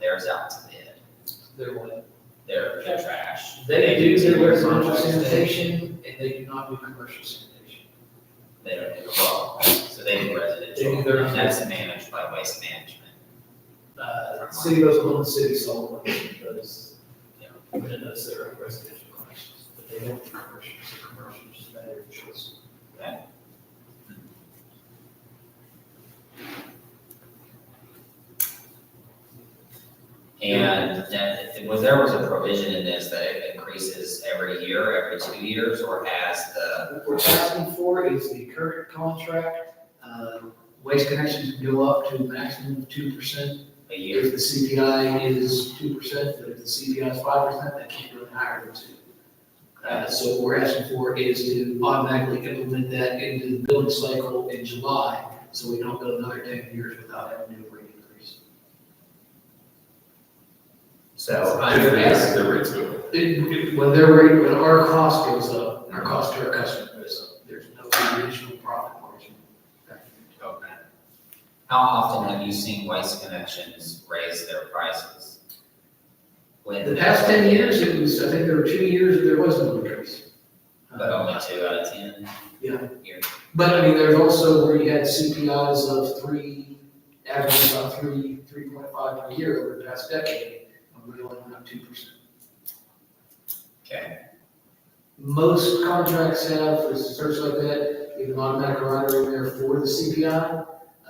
theirs out to bid, They're what? they're, they're trash. They do do do residential contract sanitation and they do not do commercial sanitation. They don't do well, so they do They residential, do their- and that's managed by waste management. Uh, city of Oklahoma City solid waste does, you know, but it does their own residential collections, but they don't do commercials, commercials is better choice. And then, was there was a provision in this that it increases every year, every two years, or as the, Uh, What we're asking for is the current contract, uh, waste connections can go up to a maximum of two percent. a year? If the CPI is two percent, but if the CPI is five percent, that can't go any higher than two. Uh, so what we're asking for is to automatically implement that into the billing cycle in July, so we don't go another ten years without having a new rate increase. So, I would ask- The rates go up. It- it- When their rate, when our cost goes up, our cost to our customer goes up, there's no additional profit margin. okay. How often have you seen waste connections raise their prices? When? In the past ten years, it was, I think there were two years that there was no increase. But only two out of ten? Yeah. Year. But I mean, there's also where you had CPIs of three, average about three, three point five per year over the past decade, and we only went up two percent. Okay, Most contracts have, for search like that, you have an automatic rider in there for the CPI,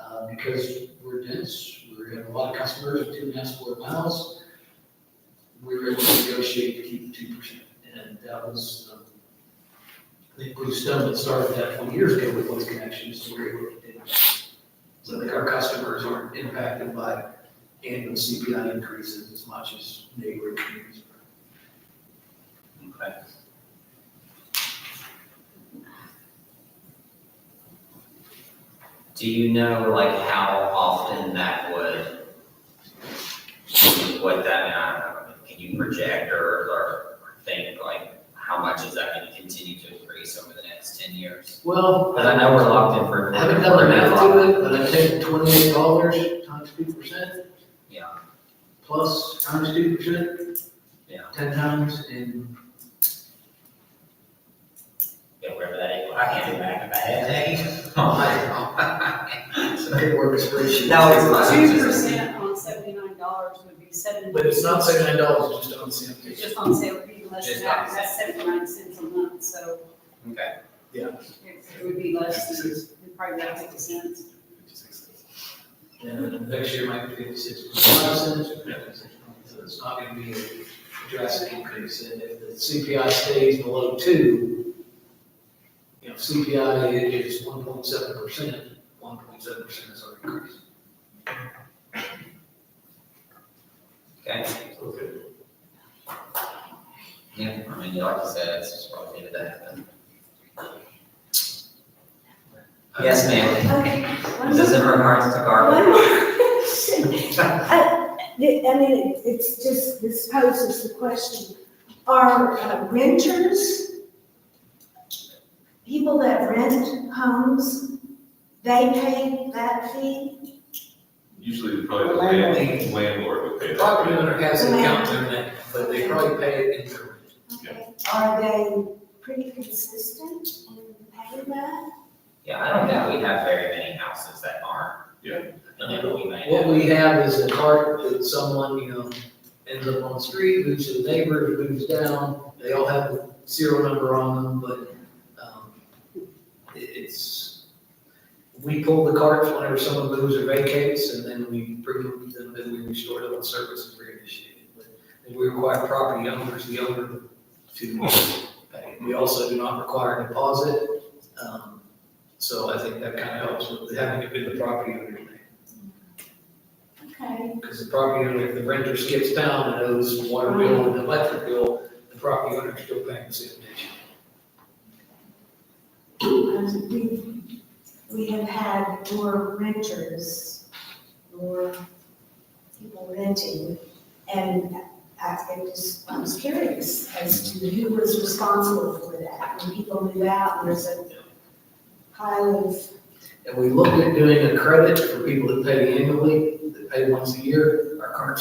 uh, because we're dense, we have a lot of customers, with two and a half square miles. We were able to negotiate to keep two percent, and that was, um, I think Blue Stone that started that twenty years ago with those connections, so we were able to do that. So like our customers aren't impacted by annual CPI increases as much as neighboring communities. are. okay. Do you know like how often that would, what that, I don't know, can you project or, or think like how much is that gonna continue to increase over the next ten years? Well, Cause I know we're locked in for. I haven't done the math to it, but I've taken twenty-eight dollars times two percent Yeah, plus times two percent, yeah, ten times, and yeah, wherever that is, I can't do back in my head, Oh so I could work a spreadsheet. No, it's not. Two percent on seventy-nine dollars would be seven. But it's not seventy-nine dollars, it's just on the same page. It's just on sale, it'd be less Just than on that, that's seventy-nine cents a month, so Okay. it it would be less than, it'd probably about fifty cents. And next year might be fifty-six point five cents, so it's not gonna be a drastic increase, and if the CPI stays below two, you know, CPI is one point seven percent, one point seven percent is our increase. Okay, Okay. yeah, I mean, like you said, it's just what needed to happen. Yes, ma'am. Okay. Is this in regards to garbage? I Uh, I mean, it's just, this poses the question, are uh, renters, people that rent homes, they pay that fee? Usually probably the land- landlord would pay that. Property right? owner has an account in that, but they probably pay it in their rent. Yeah. Are they pretty consistent in paying that? Yeah, I don't think we have very many houses that aren't. Yeah. I mean, but we may What have. we have is a cart that someone, you know, ends up on the street, moves to the neighbor, moves down, they all have a serial number on them, but, um, it- it's, we pull the carts whenever someone moves or vacates, and then we bring them, then- then we restore them on service and reinitiate it. But We require property owners, the owner, to pay. We also do not require a deposit, um, so I think that kind of helps with having it been the property owner's name. Okay. Because the property owner, if the renter skips town and owes water bill and electric bill, the property owner is still paying the sanitation. Um, We we have had more renters, more people renting, and I I just, I was curious as to who was responsible for that. When people move out, there's a pile of, And we looked at doing a credit for people that pay annually, that pay once a year. Our current